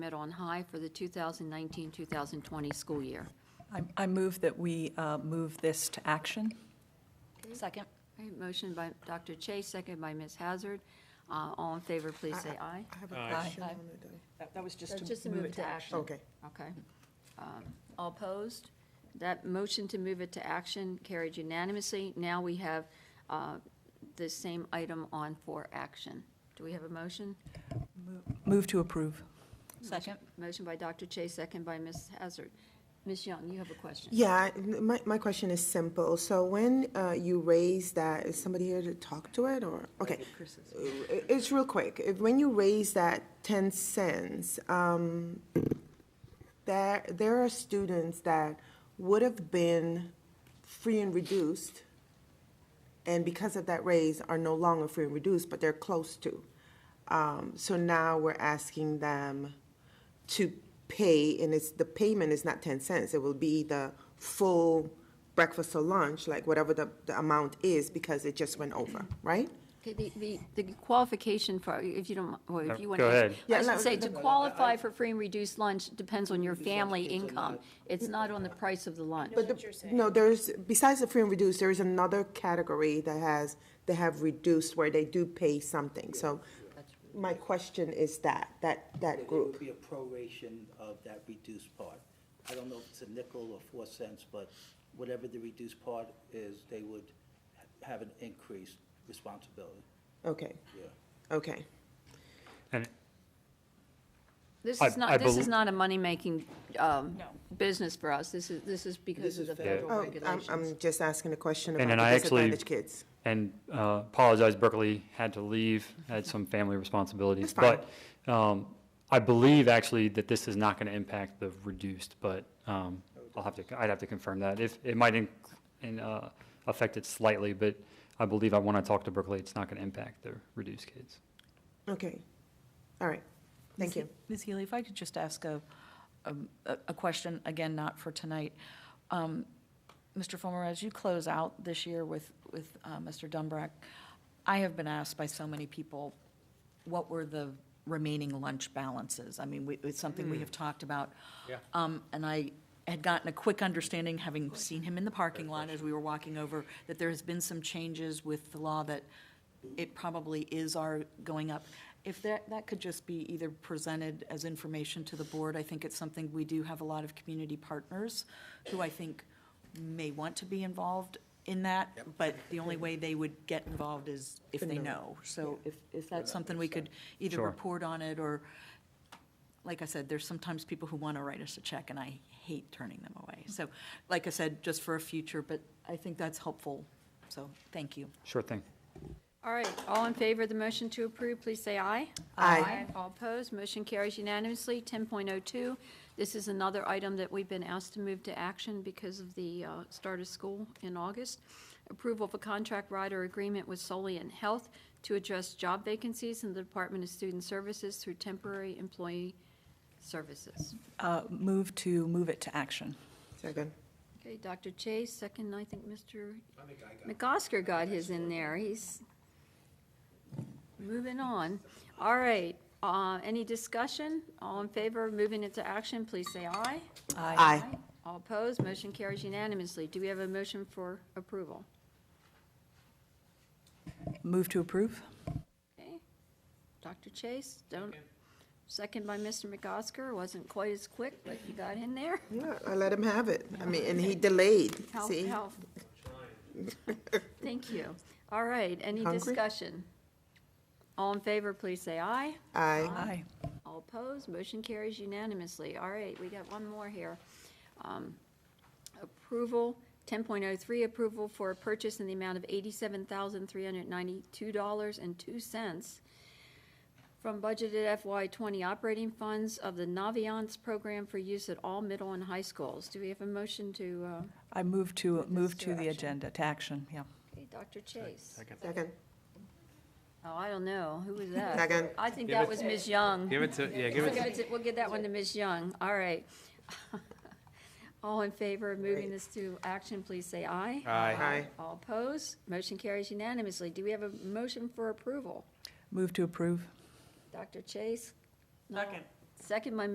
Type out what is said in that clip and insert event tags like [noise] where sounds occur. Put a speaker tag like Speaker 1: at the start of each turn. Speaker 1: Met on High for the 2019-2020 school year.
Speaker 2: I- I move that we uh, move this to action.
Speaker 3: Second.
Speaker 1: All right, motion by Dr. Chase, second by Ms. Hazard. Uh, All in favor, please say aye.
Speaker 4: I have a
Speaker 5: Aye.
Speaker 4: question
Speaker 2: Aye.
Speaker 4: on it. though.
Speaker 2: That that was just
Speaker 1: Just
Speaker 2: to move it to action.
Speaker 4: Okay.
Speaker 1: Okay. Um, All opposed? That motion to move it to action carried unanimously. Now we have uh, the same item on for action. Do we have a motion?
Speaker 2: Move to approve.
Speaker 3: Second.
Speaker 1: Motion by Dr. Chase, second by Ms. Hazard. Ms. Young, you have a question?
Speaker 4: Yeah, I- my, my question is simple. So when uh, you raise that, is somebody here to talk to it or, okay. I- It's real quick. If- When you raise that ten cents, um, there, there are students that would have been free and reduced and because of that raise are no longer free and reduced, but they're close to. Um, so now we're asking them to pay, and it's, the payment is not ten cents, it will be the full breakfast or lunch, like whatever the, the amount is, because it just went over, right?
Speaker 1: Okay, the, the, the qualification for, if you don't, well, if
Speaker 5: No,
Speaker 1: you want to.
Speaker 5: go ahead.
Speaker 1: I was
Speaker 4: Yeah,
Speaker 1: gonna
Speaker 4: no,
Speaker 1: say, to
Speaker 4: no,
Speaker 1: qualify for free and reduced lunch depends on your family income. It's not on the price of the lunch.
Speaker 4: But the- No, there's, besides the free and reduced, there is another category that has, they have reduced where they do pay something, so my question is that, that, that
Speaker 6: It would
Speaker 4: group.
Speaker 6: be a proration of that reduced part. I don't know if it's a nickel or four cents, but whatever the reduced part is, they would ha- have an increased responsibility,
Speaker 4: Okay,
Speaker 6: yeah.
Speaker 4: okay.
Speaker 5: And
Speaker 1: This
Speaker 5: I-
Speaker 1: is
Speaker 5: I
Speaker 1: not, this
Speaker 5: bel-
Speaker 1: is not a money-making, um,
Speaker 3: No.
Speaker 1: business for us. This is, this is because
Speaker 6: This
Speaker 1: of
Speaker 6: is
Speaker 1: the
Speaker 6: federal.
Speaker 1: federal
Speaker 4: Oh, I'm,
Speaker 1: regulations.
Speaker 4: I'm just asking a question
Speaker 5: And
Speaker 4: about
Speaker 5: then
Speaker 4: the
Speaker 5: I actually-
Speaker 4: disadvantaged kids.
Speaker 5: and uh, apologize, Berkeley had to leave, had some family responsibilities.
Speaker 4: That's fine.
Speaker 5: But um, I believe actually that this is not going to impact the reduced, but um, I'll have to, I'd have to confirm that. If, it might in- in, uh, affect it slightly, but I believe I want to talk to Berkeley, it's not going to impact the reduced kids.
Speaker 4: Okay, all right, thank you.
Speaker 3: Ms. Healy, if I could just ask a, um, a a question, again, not for tonight. Um, Mr. Fulmer, as you close out this year with, with uh, Mr. Dumbrack, I have been asked by so many people, what were the remaining lunch balances? I mean, we- it's something we have talked about. Yeah. Um, And I had gotten a quick understanding, having seen him in the parking lot as we were walking over, that there has been some changes with the law that it probably is our going up. If that, that could just be either presented as information to the board, I think it's something, we do have a lot of community partners who I think may want to be involved in that, but the only way they would get involved is if they know. So if, if that's something we could either
Speaker 5: Sure.
Speaker 3: report on it, or, like I said, there's sometimes people who want to write us a check, and I hate turning them away. So, like I said, just for a future, but I think that's helpful, so, thank you.
Speaker 5: Sure thing.
Speaker 1: All right, all in favor of the motion to approve, please say aye.
Speaker 4: Aye.
Speaker 1: All opposed, motion carries unanimously. 10.02, this is another item that we've been asked to move to action because of the uh, start of school in August. Approval of a contract rider agreement with Solian Health to address job vacancies in the Department of Student Services through temporary employee services.
Speaker 2: Uh, Move to move it to action.
Speaker 4: Second.
Speaker 1: Okay, Dr. Chase, second, I think Mr. McOsker got his in there, he's moving on. All right, uh, any discussion? All in favor of moving it to action, please say aye.
Speaker 4: Aye.
Speaker 1: All opposed, motion carries unanimously. Do we have a motion for approval?
Speaker 2: Move to approve?
Speaker 1: Okay, Dr. Chase, don't, second by Mr. McOsker, wasn't quite as quick, but you got in there.
Speaker 4: Yeah, I let him have it. I mean, and he delayed,
Speaker 1: Help,
Speaker 4: see? [laughs]
Speaker 1: help. Thank you. All right, any
Speaker 4: Hungry?
Speaker 1: discussion? All in favor, please say aye.
Speaker 4: Aye.
Speaker 2: Aye.
Speaker 1: All opposed, motion carries unanimously. All right, we got one more here. Um, Approval, 10.03, approval for a purchase in the amount of $87,392.02 from budgeted FY '20 operating funds of the Naviance program for use at all middle and high schools. Do we have a motion to, uh,
Speaker 2: I move to, move
Speaker 1: to
Speaker 2: to
Speaker 1: action.
Speaker 2: the agenda, to action, yeah.
Speaker 1: okay, Dr. Chase?
Speaker 4: Second.
Speaker 1: Oh, I don't know. Who was that?
Speaker 4: Second.
Speaker 1: I think that was Ms. Young.
Speaker 7: Give it to, yeah, give
Speaker 1: We'll
Speaker 7: it,
Speaker 1: give it to- we'll give that one to Ms. Young. All right. [laughs] All in favor of moving this to action, please say aye.
Speaker 7: Aye.
Speaker 4: Aye.
Speaker 1: All opposed? Motion carries unanimously. Do we have a motion for approval?
Speaker 2: Move to approve?
Speaker 1: Dr. Chase? Second. Second by